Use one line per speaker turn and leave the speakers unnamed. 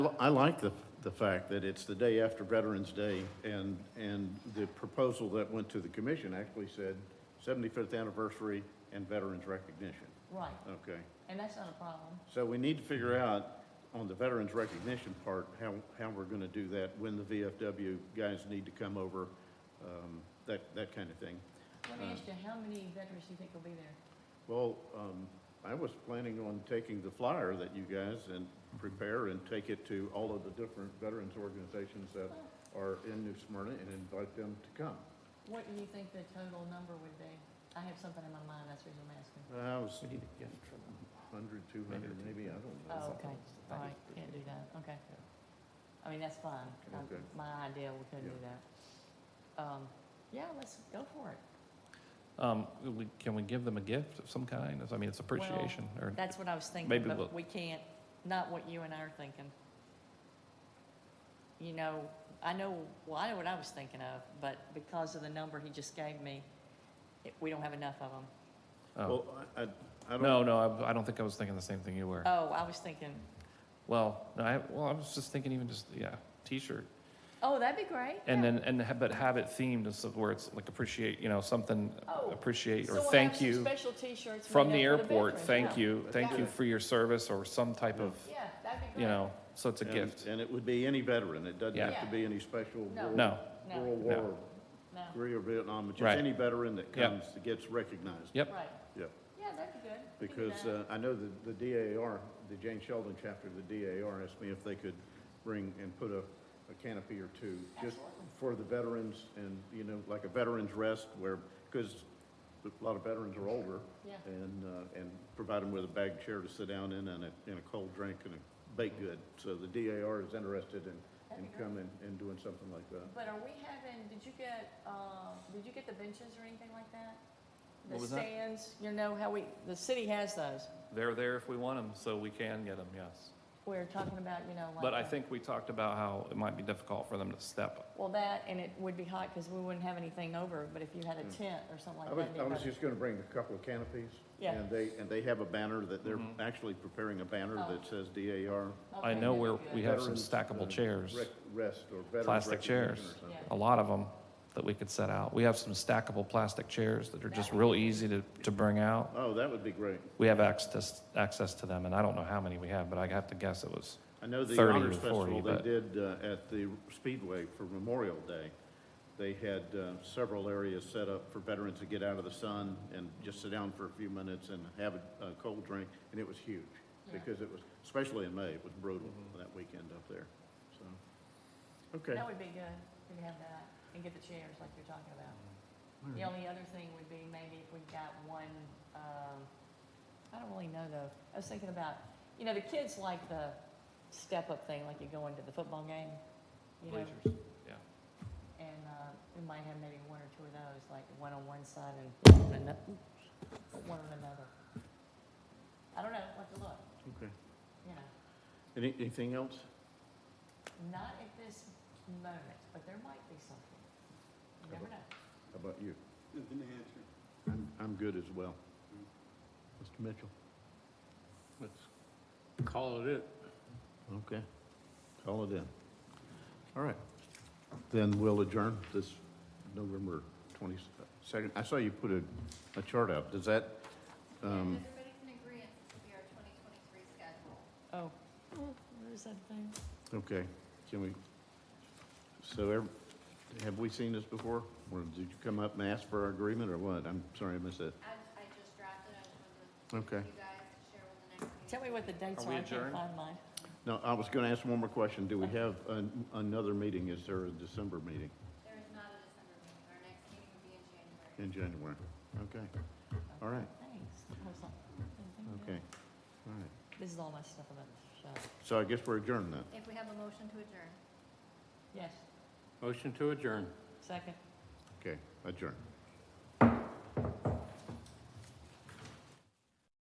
I like the, the fact that it's the day after Veterans Day, and, and the proposal that went to the commission actually said 75th anniversary and veterans recognition.
Right,
Okay,
and that's not a problem.
so we need to figure out on the veterans recognition part, how, how we're gonna do that, when the VFW guys need to come over, um, that, that kind of thing.
Let me ask you, how many veterans do you think will be there?
Well, um, I was planning on taking the flyer that you guys and prepare and take it to all of the different veterans organizations that are in New Smyrna and invite them to come.
What do you think the total number would be? I have something in my mind, that's the reason I'm asking.
I was
We need to get in trouble.
hundred, two hundred, maybe, I don't
Oh,
know.
okay, all right, can't do that, okay. I mean, that's fine. Um,
Okay.
My idea, we couldn't do that. Um, yeah, let's go for it.
Um, we- Can we give them a gift of some kind? I mean, it's appreciation, or,
That's what I was thinking,
Maybe we'll-
but we can't, not what you and I are thinking. You know, I know, well, I know what I was thinking of, but because of the number he just gave me, it- we don't have enough of them.
oh.
Well, I, I, I don't.
no, no, I- I don't think I was thinking the same thing you were.
Oh, I was thinking,
Well, no, I, well, I was just thinking even just, yeah, t-shirt.
oh, that'd be great.
And
yeah.
then, and, ha- but have it themed, and so where it's like appreciate, you know, something,
Oh,
appreciate,
So
or
we'll have
thank
some
you
Special t-shirts.
from the
made up for
airport,
veterans,
thank
yeah.
you, thank you
Yeah.
for your service, or some type of,
Yeah, that'd be great.
you know, so it's a
and-
gift.
And it would be any veteran, it doesn't have
Yeah.
to be any special
No.
World
No,
No.
World
No.
War,
No,
Korea, Vietnam, it's
Right.
just any veteran that
Yep.
comes, that gets recognized.
yep,
right,
Yeah.
yeah, that'd be good. We can do
Because
that.
uh, I know that the DAR, the Jane Sheldon chapter of the DAR asked me if they could bring and put a, a canopy or two just
Absolutely.
for the veterans and, you know, like a veterans rest where, because a lot of veterans are older
Yeah.
and, uh, and provide them with a bag chair to sit down in and a, and a cold drink and a baked good. So the DAR is interested in, in
That'd be great.
coming and doing something like that.
But are we having, did you get, uh, did you get the benches or anything like that? The
What was that?
stands, you know how we, the city has those.
they're there if we want them, so we can get them, yes.
We're talking about, you know, like.
But I
the-
think we talked about how it might be difficult for them to step.
Well, that, and it would be hot because we wouldn't have anything over, but if you had a tent or something like
Hmm. I
that.
was,
it'd be
I was
better.
just gonna bring a couple of canopies.
Yeah.
And they, and they have a banner that they're actually preparing a banner
Oh.
that says DAR.
I
Okay,
know
that'd
where
be
we
good.
have some
Veterans,
stackable
uh,
chairs,
rec- Rest or veterans.
Plastic
recognition
chairs.
or something.
Yeah.
a lot of them that we could set out. We have some stackable plastic chairs that are just real easy to, to bring out.
Oh, that would be great.
We have access, access to them, and I don't know how many we have, but I have to guess it was,
I know the
30 or
Honors
40,
Festival they
but-
did uh, at the Speedway for Memorial Day, they had uh, several areas set up for veterans to get out of the sun and just sit down for a few minutes and have a a cold drink, and it was huge,
Yeah.
because it was, especially in May, it was brutal that weekend up there, so. Mm-hmm. Okay.
That would be good, we could have that and get the chairs like you're talking about. The only other thing would be maybe if we got one, um, I don't really know though. I was thinking about, you know, the kids like the step-up thing, like you go into the football game, you know?
Bleachers, yeah.
And, uh, we might have maybe one or two of those, like one on one side and one on another, one on another. I don't know, we'll have to look,
Okay.
you know,
Any- Anything else?
not at this moment, but there might be something. You never know.
How about you? I'm, I'm good as well. Mr. Mitchell?
Let's call it it.
Okay, call it in. All right, then we'll adjourn this November twenty-second. I saw you put a, a chart out, does that, um,
If everybody can agree, it will be our 2023 schedule.
Oh, where is that thing?
okay, can we, so ev- have we seen this before? Or did you come up and ask for our agreement or what? I'm sorry I missed that.
I, I just drafted, I just wanted
Okay,
to, you guys to share with the next meeting.
Tell me what the dates
Are
are,
we
I can't
adjourned?
find mine.
now, I was gonna ask one more question, do we have an- another meeting, is there a December meeting
There is not a December meeting, our next meeting will be in January.
in January? Okay, all right,
Thanks. I was like, I didn't think of that.
okay, all right,
This is all my stuff about the show.
so I guess we're adjourned then.
If we have a motion to adjourn.
Yes,
Motion to adjourn.
second.
Okay, adjourn.